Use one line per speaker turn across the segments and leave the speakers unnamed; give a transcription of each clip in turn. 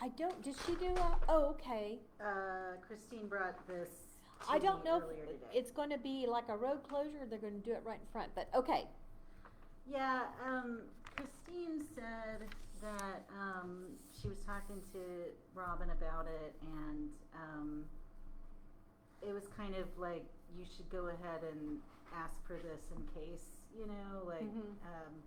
I don't, did she do a, oh, okay.
Uh, Christine brought this to
I don't
me
know, if
earlier today.
it's gonna be like a road closure, they're gonna do it right in front, but, okay.
Yeah, um, Christine said that, um, she was talking to Robin about it and, um, it was kind of like, you should go ahead and ask for this in case, you know, like,
Mhm.
um,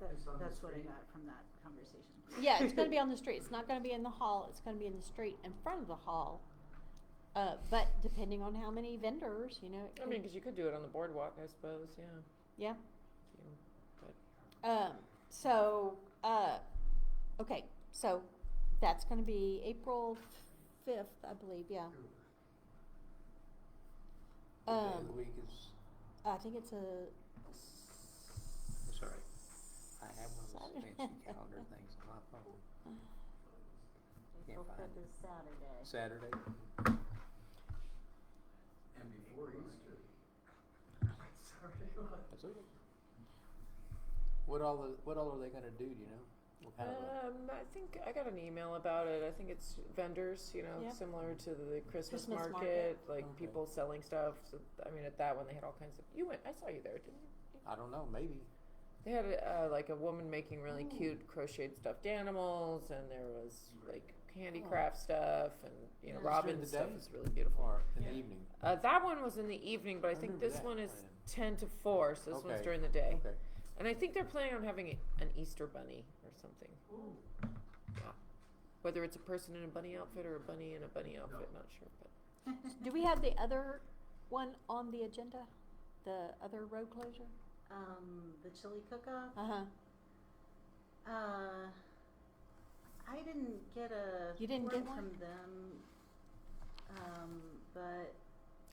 that,
It's on the
that's what I
screen.
got from that conversation.
Yeah, it's gonna be on the street, it's not gonna be in the hall, it's gonna be in the street in front of the hall. Uh, but depending on how many vendors, you know, it
I
could-
mean, because you could do it on the boardwalk, I suppose, yeah.
Yeah.
You-
Um, so, uh, okay, so that's gonna be April fifth, I believe, yeah.
What day of
Um,
the week is,
I think it's a.
That's all right. I have one of those
Saturday.
fancy calendar things on my phone.
April
find
fifth is Saturday.
Saturday,
And before Easter.
oh,
Sorry, what?
that's okay. What all, the- what all are they gonna do, do you know? How do they-
Um, I think I got an email about it. I think it's vendors, you know,
Yeah.
similar to the Christmas,
Christmas
market,
market.
like
Okay.
people selling stuff. So, I mean, at that one they had all kinds of. You went, I saw you there, didn't you?
I don't know, maybe.
They had uh, like a woman making really
Ooh.
cute crocheted stuffed animals, and there was like
Oh.
handicraft stuff, and you know,
That's during the
Robin's stuff
day?
is really beautiful.
Or in the
Yeah.
evening,
Uh, that one was in the evening, but I,
I
think
remember
this
that
one is
plan.
ten to four, so this one's
Okay.
during the day.
okay.
And I think they're planning on having a, an Easter bunny or something.
Ooh,
Whether it's a person in a bunny outfit or a bunny in a bunny outfit, not sure. But
Do we have the other one on the agenda? The other road closure?
Um, the chili cook-off?
Uh-huh,
Uh, I didn't get a
You didn't
form
get one?
from them. Um, but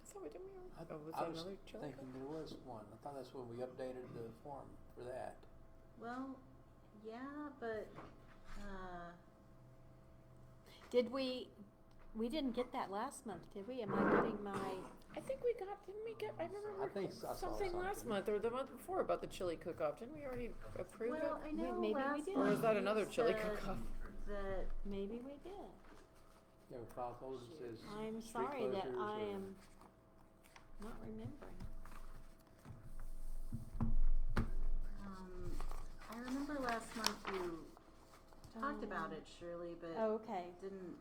so we didn't.
I-
oh, was
I
that
was
another chili?
Thinking there was one, I thought that's when we updated the form for that.
well, yeah, but uh,
did we, we didn't get that last month, did we? Am I getting my,
I think we got. Didn't we get? I remember
I think so- I saw
something last
something.
month or the month before about the chili cook-off. Didn't we already approve
well, I
We-
know
maybe we
last
did.
it? Or is that
month
another
you
chili
said
cook-off?
That
maybe we did.
Yeah, we filed those, it says.
I'm
street
sorry that
closures
I
or-
am not remembering.
um, I remember last month you talked about
Um,
it, Shirley, but
Oh, okay.
didn't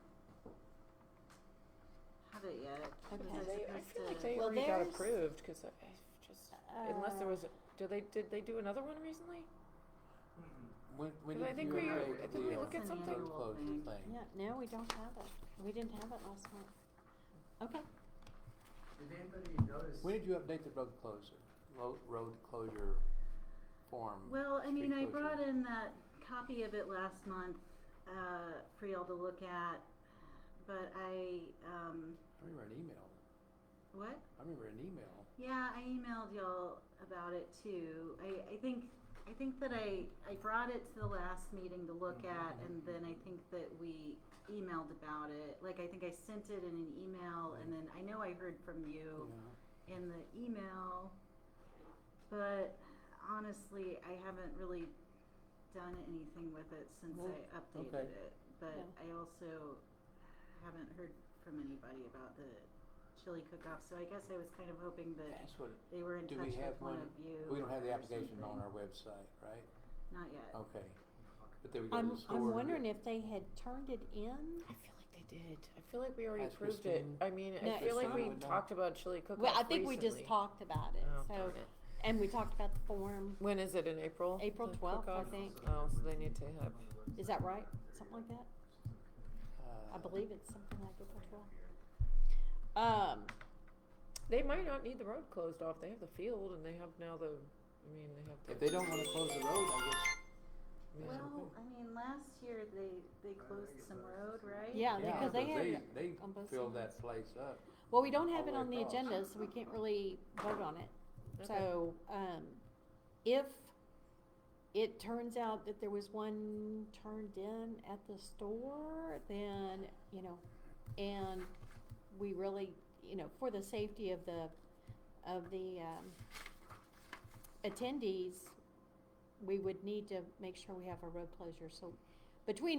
have it yet. Was
Okay.
I
They, I
supposed
feel like
to-
they
Well,
already got
there's-
approved because I, I just unless there
Uh,
was. A, do they did they do another one recently?
Mm-mm.
When, when
'Cause I
did
think
you
we-
update
I think we
the, uh,
look at
road
something-
closure
Thing.
thing?
Yeah, no, we don't have it. We didn't have it last month. Okay,
Did anybody notice?
When did you update the road closure, road, road closure form?
Well, I mean, I
Street closure.
brought in that copy of it last month, uh, for y'all to look at, but I, um,
I remember an email,
what?
I remember an email.
Yeah, I emailed y'all about it too. I, I think, I think that I, I brought it to the last meeting to look at, and then I think that we emailed about it. Like, I think I sent it in an email, and then I know I heard from you.
Yeah.
in the email, but honestly, I haven't really done anything with it since
Well,
I updated
okay.
it. But
Yeah.
I also haven't heard from anybody about the chili cook-off, so I guess I was kind of hoping that
That's what,
they were in
Do we
touch
have
with one
one-
of you.
we don't have the
or
application Oh. on
something.
our website, right?
Not yet.
Okay. But they would go to
I'm,
the store.
I'm wondering if they had turned it in.
I feel like they did. I feel like we already
Ask
approved
Christine.
it. I mean,
No,
I feel like
Christine
we
would know.
talked about chili cook-off.
Well, I think we just
recently.
talked about it,
Oh,
so,
darn it.
and we talked about the form,
When is it in April?
April
The
12th, I
cook-off?
think.
Oh, so they need to have.
Is that right? Something like that? I
Uh,
believe it's something like April twelfth. Um,
They might not need the road closed off. They have the field, and they have now the. I mean, they have. The,
If they don't wanna close the road, I guess,
yeah.
Well, I mean, last year they, they
I
closed
think
some
it's
road,
nice.
right?
Yeah,
yeah,
because they
because
had
they, they
on both
fill
sides.
that place up.
well, we don't
All
have it
the way
on the
across.
agenda, so we can't really vote on it.
Okay.
So, um, if it turns out that there was one turned in at the store, then, you know, and we really, you know, for the safety of the, of the, um, attendees, we would need to make sure we have a road closure, so between